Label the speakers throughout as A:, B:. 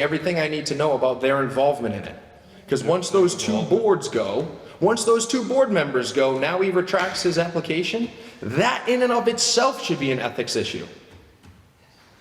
A: everything I need to know about their involvement in it. Because once those two boards go, once those two board members go, now he retracts his application, that in and of itself should be an ethics issue.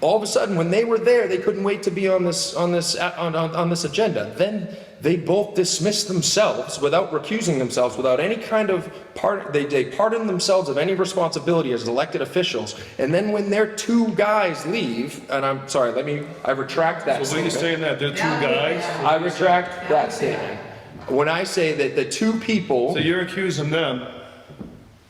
A: All of a sudden, when they were there, they couldn't wait to be on this, on this, on, on, on this agenda. Then they both dismissed themselves without recusing themselves, without any kind of part, they, they pardoned themselves of any responsibility as elected officials. And then when their two guys leave, and I'm sorry, let me, I retract that
B: So what you
A: statement.
B: saying that they're two guys?
A: I retract that statement. When I say that the two people,
B: So you're accusing them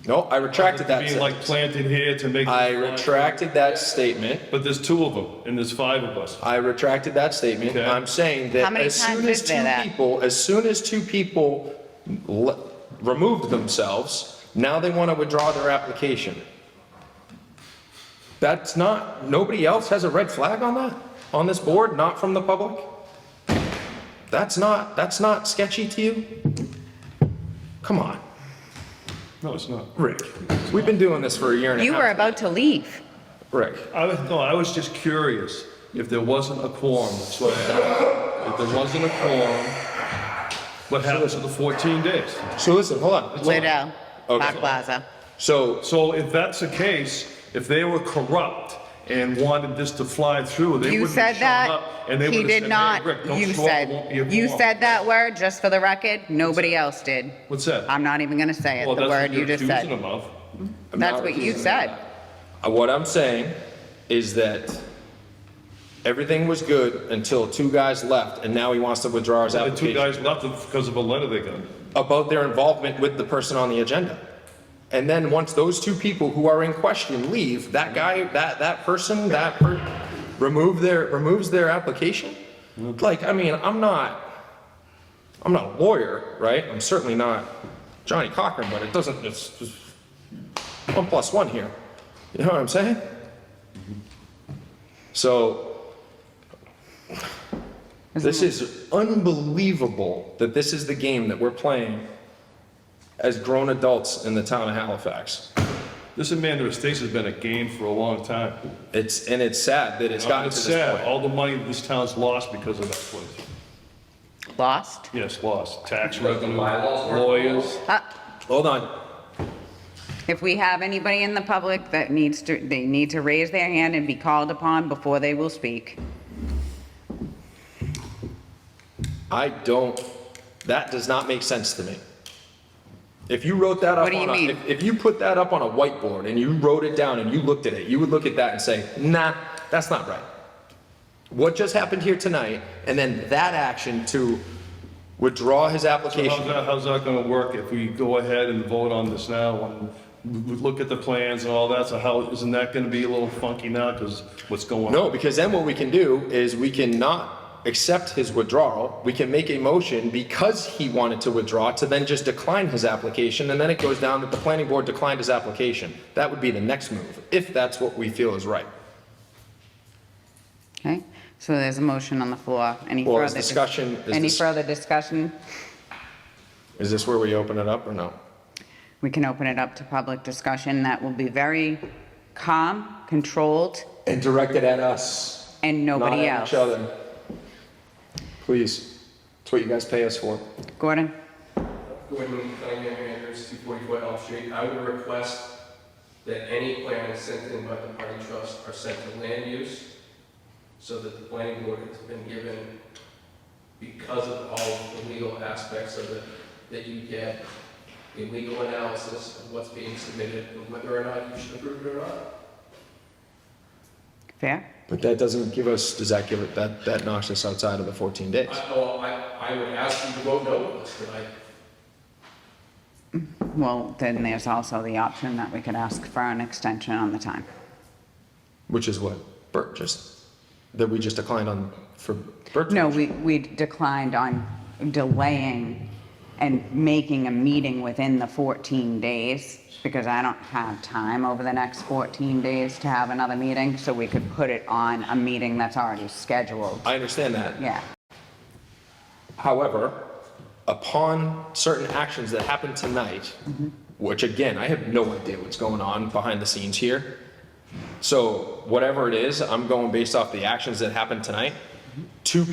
A: no, I retracted
B: of
A: that
B: being like
A: sentence.
B: planted here to make.
A: I
B: this line.
A: retracted that statement.
B: But there's two of them and there's five of us.
A: I retracted that statement.
B: Okay.
A: I'm saying
C: How
A: that
C: many
A: as soon
C: times
A: as
C: is there
A: two
C: that?
A: people, as soon as two people le- removed themselves, now they want to withdraw their application. That's not, nobody else has a red flag on that, on this board, not from the public? That's not, that's not sketchy to you? Come on.
B: No, it's not.
A: Rick, we've been doing this for a year and a half.
C: You were about to leave.
A: Rick,
B: I was, no, I was just curious if there wasn't a quorum, that's what I asked. If there wasn't a quorum, what happens to the 14 days?
A: so listen, hold on.
C: Widow,
A: Okay.
C: Park Plaza.
A: So,
B: So if that's the case, if they were corrupt and wanted this to fly through, they
C: You
B: wouldn't have
C: said
B: shown
C: that.
B: up. and they
C: He
B: would've said,
C: did
B: "Hey,
C: not.
B: Rick, don't show
C: You
B: up, it won't
C: said,
B: be a
C: you
B: quorum."
C: said that word just for the record. Nobody else did.
B: What's that?
C: I'm not even going to say
B: Well,
C: it,
B: that's
C: the
B: what
C: word
B: you're
C: you just
B: accusing
C: said.
B: them of.
A: I'm
C: That's
A: not
C: what you
A: accusing
C: said.
A: uh, what I'm saying is that everything was good until two guys left, and now he wants to withdraw his
B: The two
A: application
B: guys left because of a letter they got.
A: about their involvement with the person on the agenda. And then once those two people who are in question leave, that guy, that, that person, that per, remove their, removes their application? Like, I mean, I'm not, I'm not a lawyer, right? I'm certainly not Johnny Cochran, but it doesn't, it's, just one plus one here. You know what I'm saying? So, this is unbelievable that this is the game that we're playing as grown adults in the town of Halifax.
B: This Amanda Estates has been a game for a long time.
A: It's, and it's sad that it's gotten
B: It's
A: to this
B: sad,
A: point.
B: all the money this town's lost because of that place.
C: Lost?
B: Yes, lost, tax revenue, lawyers.
C: Uh,
A: Hold on,
C: If we have anybody in the public that needs to, they need to raise their hand and be called upon before they will speak.
A: I don't, that does not make sense to me. If you wrote that
C: What
A: up
C: do you
A: on a,
C: mean?
A: if- if you put that up on a whiteboard and you wrote it down and you looked at it, you would look at that and say, nah, that's not right. What just happened here tonight, and then that action to withdraw his
B: How's
A: application.
B: that, how's that gonna work if we go ahead and vote on this now and we look at the plans and all that? So how, isn't that gonna be a little funky now, cause what's going on?
A: No, because then what we can do is we can not accept his withdrawal. We can make a motion because he wanted to withdraw to then just decline his application, and then it goes down that the planning board declined his application. That would be the next move, if that's what we feel is right.
C: Okay? So there's a motion on the floor. Any
A: Well,
C: further?
A: is
C: dis-
A: discussion- is
C: Any
A: dis-
C: further discussion?
A: Is this where we open it up or no?
C: We can open it up to public discussion. That will be very calm, controlled,
A: And directed at us.
C: and nobody
A: Not at
C: else.
A: each other. Please. It's what you guys pay us for.
C: Gordon?
D: Gordon Cunningham Andrews, 244 Elm Street. I would request that any plans sent in by the party trust are sent to land use so that the planning board has been given, because of all the legal aspects of it, that you get a legal analysis of what's being submitted and whether or not you should approve it or not.
C: Fair?
A: But that doesn't give us, does that give it, that, that knocks us outside of the 14 days?
D: I, oh, I, I would ask you to vote no on this tonight.
C: Well, then there's also the option that we could ask for an extension on the time.
A: Which is what Bert just, that we just declined on for Bert.
C: No, we, we declined on delaying and making a meeting within the 14 days because I don't have time over the next 14 days to have another meeting, so we could put it on a meeting that's already scheduled.
A: I understand that.
C: Yeah.
A: However, upon certain actions that happened tonight, which again, I have no idea what's going on behind the scenes here. So whatever it is, I'm going based off the actions that happened tonight. Two